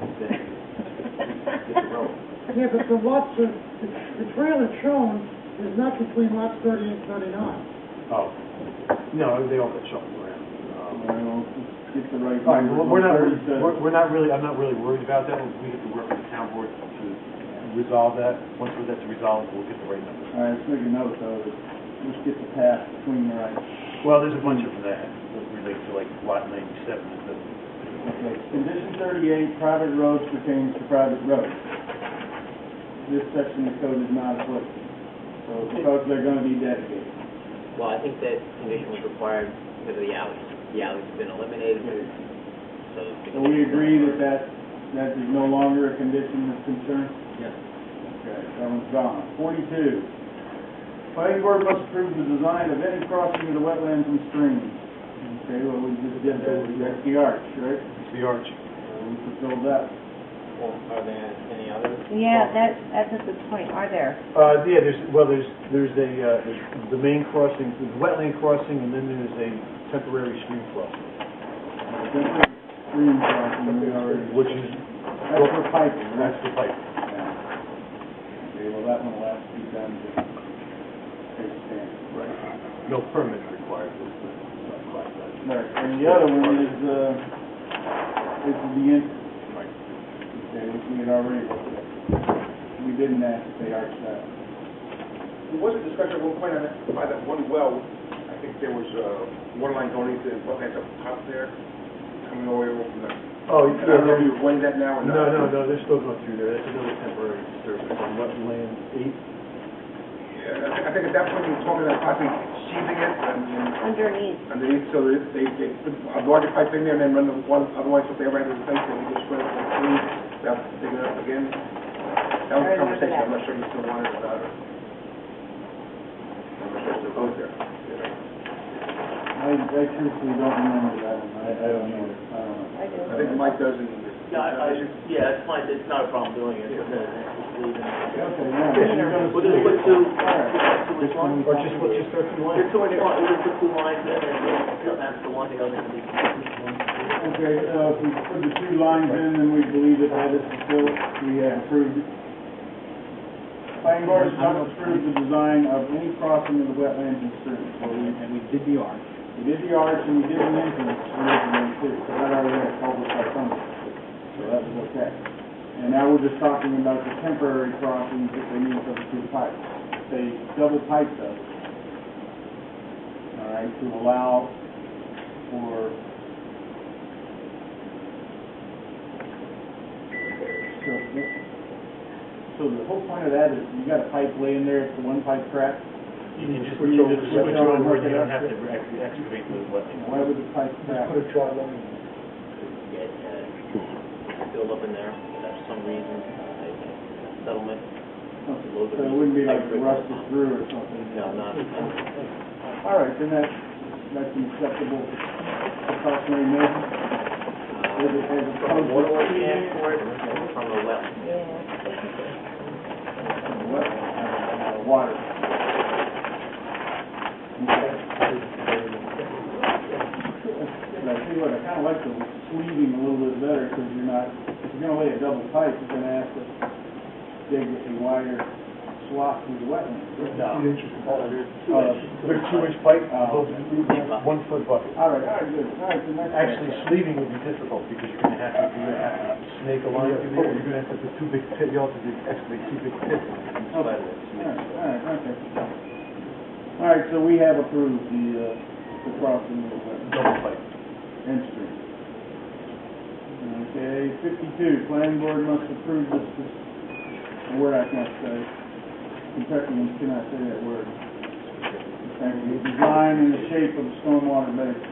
Oh. Yeah, but the lots, are- the the trail that's shown is not between lots thirty and thirty-nine. Oh, no, they all get shuffled around. Um, Well, get the right. All right, well, we're not, numbers on we're, we're not really, I'm not really worried about that, we have to work with the town board to resolve that. Once that's resolved, we'll get the right number. Thursday. All right, let's make a note though, that let's get the path between the right. Well, there's a bunch of that, that relate to like lot ninety-seven, it doesn't- Okay, condition thirty-eight, private roads pertains to private roads. This section of code is not applicable, so the roads are gonna be dedicated. Well, I think that condition was required because of the alleys. The alleys have been eliminated, so. the So we agree that condition- that, that is no longer a condition of concern? Yes. Okay, that one's gone. Forty-two, planning board must approve the design of any crossing of the wetlands and streams. Okay, well, we just did that, that's the arch, right? it's the arch. So We fulfilled that. Well, Are there any others? Yeah, that, that's a good point, are there? Uh, yeah, there's, well, there's, there's a, uh, there's the main crossing, the wetland crossing, and then there's a temporary stream crossing, Stream crossing, we already, which is, that's for piping, right? that's the pipe. Okay, well, that one will have to be done to take a stand. Right. No permit required. Right, and the other one is, uh, is the in, Right. okay, which we had already looked at. We didn't ask if they arched that. There was a discussion at one point on that, by that one well, I think there was, uh, one line going into the wetlands up top there, coming all the way over from there. Oh, I don't know if you've weighed that now or No, not. no, no, they're still going through there, that's another temporary disturbance on wetland eight. Yeah, I think- I think at that point, you were talking about possibly sheathing it and, and Underneath. underneath, so that they, they put a larger pipe in there and then run the one, otherwise if they ran into the fence, they would just run it through, without digging it up again. That was I a remember that. conversation, I'm not sure you still want it or not. I'm not sure it's both there. I, I truthfully don't remember that one, I, I don't know, I don't know. I do. I think Mike does in. Yeah, I, I, yeah, it's fine, it's not a problem doing it, but, uh, just leaving it. Okay, now, Yeah. you're gonna We'll just see. put two, All right. two which one? Or just, what, just thirteen one? Just two in the, we'll just put two lines in, and then that's the one, the other can be. Okay, so if we put the two lines in, then we believe that that is fulfilled, we have approved it. Planning board has not approved the design of any crossing of the wetlands and streams, so we, And we did the arch. we did the arch and we did an entrance originally too, so that already had published our permit. So that was okay. And now we're just talking about the temporary crossings that they need for the two pipes. They double pipe those. All right, to allow for So, so the whole point of that is you got a pipe laying there, it's the one pipe crack, You can just, Which you one- just switch on where you which one- don't have to ex- excavate the wetland. why would the pipe crack? Put a dry line in. Get, uh, build up in there, but for some reason, like, settlement, So it wouldn't be like rusted through or something? no, not, not- All right, then that's, that's an acceptable precautionary measure. As it- as opposed From a to- waterway standpoint, from a wetland. Yeah. Well, uh, Water. Okay. And I tell you what, I kinda like the sleeving a little bit better, because you're not, if you're gonna lay a double pipe, you're gonna have to dig a wider swath through the wetlands. Two inches. Uh, They're two inch pipe, Oh. one foot bucket. All right, all right, good, all right, then that's. Actually, sleeving would be difficult because you're gonna have to, you're gonna have to snake a line through there. You're gonna have to put two big pit, you also have to excavate two big pits on each side of that All snake. right, all right, okay. All right, so we have approved the, uh, the crossing of the wetlands. Double pipe. Instream. Okay, fifty-two, planning board must approve this, this, a word I can't say. Kentuckians cannot say that word. Thank you. Design and the shape of the stormwater basin.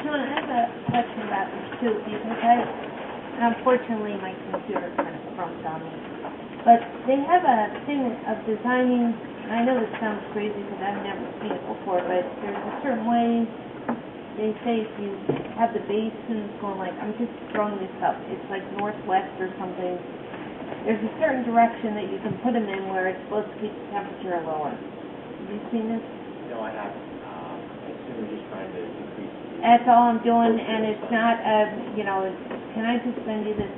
John, I have a question about this too, because I, unfortunately, my computer kind of crumped on me. But they have a thing of designing, and I know this sounds crazy because I've never seen it before, but there's a certain way, they say if you have the basins going like, I'm just throwing this up, it's like northwest or something. There's a certain direction that you can put them in where it's supposed to keep the temperature lower. Have you seen this? no, I haven't. Um, I assume we're just trying to increase. the- That's all I'm doing, and it's not, uh, you know, it's- can I just send you this